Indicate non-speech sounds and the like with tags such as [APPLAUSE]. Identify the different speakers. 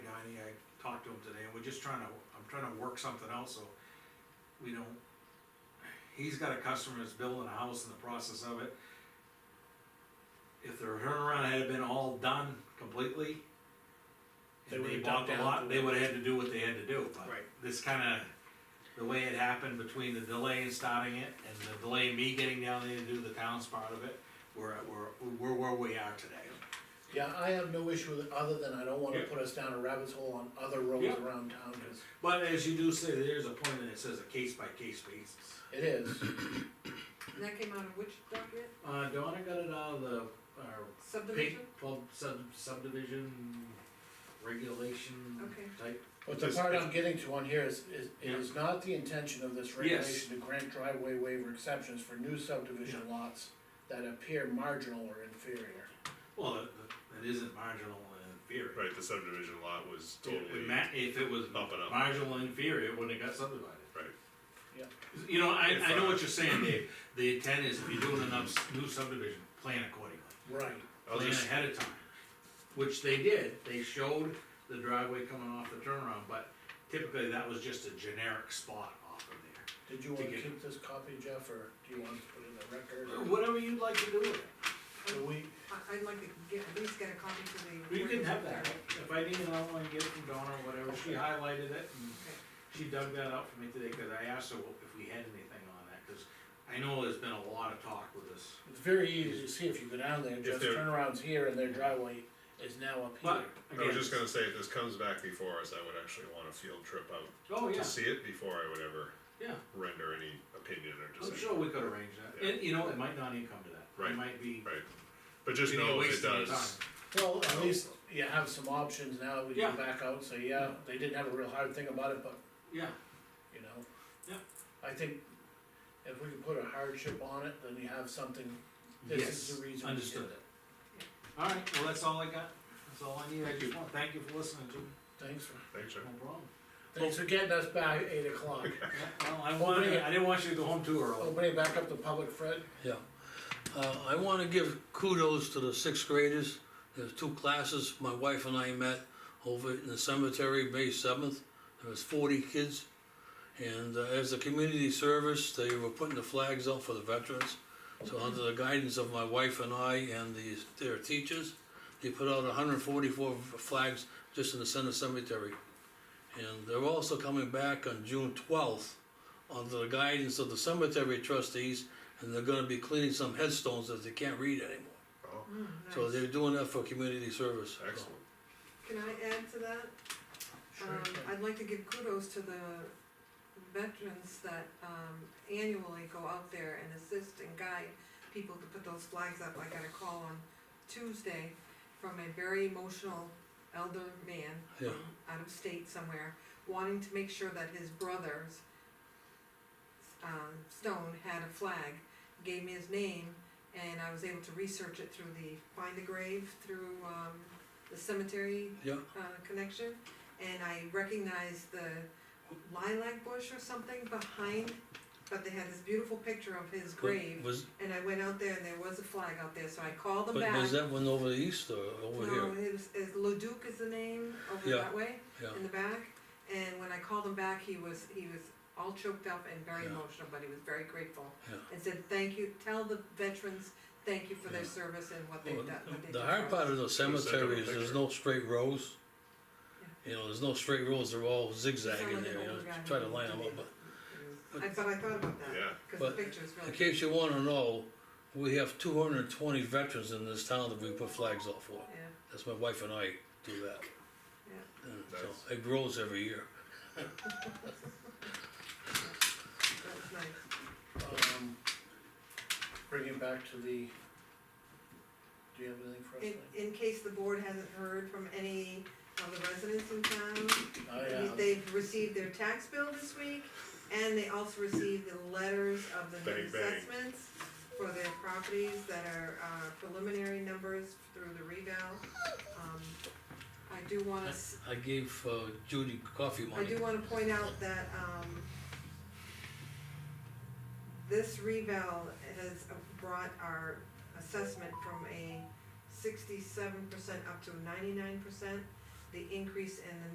Speaker 1: we're just trying to, I'm trying to work something out, so we don't. He's got a customer that's building a house in the process of it. If their turnaround had been all done completely.
Speaker 2: They
Speaker 1: And they
Speaker 2: would've
Speaker 1: bought
Speaker 2: dumped
Speaker 1: the
Speaker 2: out
Speaker 1: lot,
Speaker 2: the-
Speaker 1: they would've had to do what they had to do, but.
Speaker 2: Right.
Speaker 1: This kinda, the way it happened between the delay in starting it and the delay in me getting down there to do the town's part of it, we're, we're, we're where we are today.
Speaker 2: Yeah, I have no issue with, it, other than I don't wanna
Speaker 1: Yeah.
Speaker 2: put us down a rabbit's hole on other roads
Speaker 1: Yeah.
Speaker 2: around town, cause
Speaker 1: But as you do say, there's a point that it says a case by case basis.
Speaker 2: it is.
Speaker 1: [COUGHS]
Speaker 3: And that came out of which document?
Speaker 1: Uh, Donna got it out of the, our pink
Speaker 3: Subdivision?
Speaker 1: pub sub subdivision regulation
Speaker 3: Okay.
Speaker 1: type.
Speaker 2: But the
Speaker 4: It's-
Speaker 2: part
Speaker 4: it's-
Speaker 2: I'm getting to on here is, is, it
Speaker 1: Yeah.
Speaker 2: is not the intention of this regulation to grant driveway waiver exceptions for new subdivision lots that appear marginal or inferior.
Speaker 1: Well, that, that- that isn't marginal and inferior.
Speaker 4: Right, the subdivision lot was
Speaker 1: It
Speaker 4: totally,
Speaker 1: ma- If it was
Speaker 4: Bump it up.
Speaker 1: marginal and inferior, it wouldn't have got subdivided.
Speaker 4: right,
Speaker 1: You know, I,
Speaker 4: If,
Speaker 1: I know
Speaker 4: uh,
Speaker 1: what you're saying, Dave, the intent is if you're doing a nubs- new subdivision, plan accordingly,
Speaker 2: Right.
Speaker 4: I'll
Speaker 1: plan
Speaker 4: just-
Speaker 1: ahead of time. Which they did, they showed the driveway coming off the turnaround, but typically that was just a generic spot off of there.
Speaker 2: Did you wanna
Speaker 1: To get- Uh,
Speaker 2: keep this copy, Jeff, or do you want to put it in the record?
Speaker 1: Whatever you'd like to do with it,
Speaker 2: Do we,
Speaker 3: I, I'd like to get, at least get a copy for the.
Speaker 1: you can have that, if I need an outline, get it from Donna or whatever, she highlighted it and she dug that out for me today, cause I asked her if we had anything on that, cause I know there's been a lot of talk with this.
Speaker 2: it's very easy to see if you go down there, just
Speaker 4: they're-
Speaker 2: turn around here and their driveway is now up
Speaker 1: But,
Speaker 2: here.
Speaker 4: I was
Speaker 1: again,
Speaker 4: just gonna say, if this comes back before us, I would actually want a field trip out
Speaker 1: oh, yeah,
Speaker 4: to see it before I would ever
Speaker 1: yeah.
Speaker 4: render any opinion or
Speaker 1: I'm
Speaker 4: decision.
Speaker 1: sure we could arrange that,
Speaker 4: Yeah.
Speaker 1: and you know, it might not even come to that,
Speaker 4: Right.
Speaker 1: it might be.
Speaker 4: Right, but just
Speaker 1: we need to
Speaker 4: know if it
Speaker 1: waste any
Speaker 4: does,
Speaker 1: time.
Speaker 2: Well, at least you have some options now, that we
Speaker 1: Yeah.
Speaker 2: can back out, so yeah, they didn't have a real hard thing about it, but
Speaker 1: Yeah,
Speaker 2: you know?
Speaker 1: Yeah.
Speaker 2: I think if we could put a hardship on it, then you have something, this is
Speaker 1: yes,
Speaker 2: the reason we did it.
Speaker 1: understood. Alright, well, that's all I got, that's all I need, I just want, thank you for listening to me,
Speaker 2: Thanks for,
Speaker 4: thanks, Jeff.
Speaker 1: no [LAUGHS] problem.
Speaker 2: thanks for getting us back at eight o'clock.
Speaker 1: Yeah, Well, I wanted, I didn't want you to go home too early.
Speaker 2: Opening back up to public, Fred,
Speaker 5: Yeah, uh, I wanna give kudos to the sixth graders, there's two classes, my wife and I met over in the cemetery, May seventh, there was forty kids. And uh, as a community service, they were putting the flags out for the veterans, so under the guidance of my wife and I and the, their teachers, they put out hundred and forty-four flags just in the center cemetery. And they're also coming back on June twelfth, under the guidance of the cemetery trustees, and they're gonna be cleaning some headstones that they can't read anymore.
Speaker 4: Oh,
Speaker 5: So
Speaker 3: Mm, Nice.
Speaker 5: they're doing that for community service. so.
Speaker 4: excellent,
Speaker 3: Can I add to that?
Speaker 2: sure,
Speaker 3: Um, I'd like to give kudos to the veterans that, um, annually go out there and assist and guide people to put those flags up. I got a call on Tuesday from a very emotional elder man
Speaker 5: Yeah.
Speaker 3: from out of state somewhere, wanting to make sure that his brother's um, stone had a flag, gave me his name, and I was able to research it through the Find a Grave, through, um, the cemetery
Speaker 5: Yeah,
Speaker 3: uh, connection, and I recognized the lilac bush or something behind, but they had this beautiful picture of his grave,
Speaker 5: was,
Speaker 3: and I went out there and there was a flag out there, so I called them
Speaker 5: but
Speaker 3: back.
Speaker 5: was that one over the east or over
Speaker 3: No,
Speaker 5: here?
Speaker 3: his, his Leduc is the name over
Speaker 5: Yeah.
Speaker 3: that way,
Speaker 5: Yeah,
Speaker 3: in the back, and when I called him back, he was, he was all choked up and very
Speaker 5: Yeah.
Speaker 3: emotional, but he was very grateful.
Speaker 5: Yeah.
Speaker 3: And said, thank you, tell the veterans, thank you for their
Speaker 5: Yeah.
Speaker 3: service and what
Speaker 5: Well,
Speaker 3: they've done, what they've
Speaker 5: The
Speaker 3: done
Speaker 5: hard
Speaker 3: for us."
Speaker 5: part of the cemetery is there's no straight rows. You know, there's no straight rows, they're all zigzagging there, you know, try to line them up, but
Speaker 3: I thought, I thought about that.
Speaker 4: yeah,
Speaker 3: Cause the
Speaker 5: But
Speaker 3: picture's
Speaker 5: in
Speaker 3: really.
Speaker 5: case you wanna know, we have two hundred and twenty veterans in this town that we put flags out for.
Speaker 3: Yeah,
Speaker 5: That's my wife and I do that.
Speaker 3: Yeah.
Speaker 5: And so
Speaker 4: Nice.
Speaker 5: it grows every year.
Speaker 3: that's nice.
Speaker 2: um, bring it back to the, do you have anything for us?
Speaker 3: In,
Speaker 2: Lee?
Speaker 3: in case the board hasn't heard from any of the residents in town,
Speaker 5: Oh,
Speaker 2: I, uh,
Speaker 3: they've received their tax bill this week, and they also received the letters of the new
Speaker 4: Bang, bang.
Speaker 3: assessments for their properties that are uh, preliminary numbers through the revale. Um, I do wanna s-
Speaker 5: I gave uh, Judy coffee
Speaker 3: I
Speaker 5: money.
Speaker 3: do wanna point out that, um, this revale has brought our assessment from a sixty-seven percent up to ninety-nine percent. The increase in the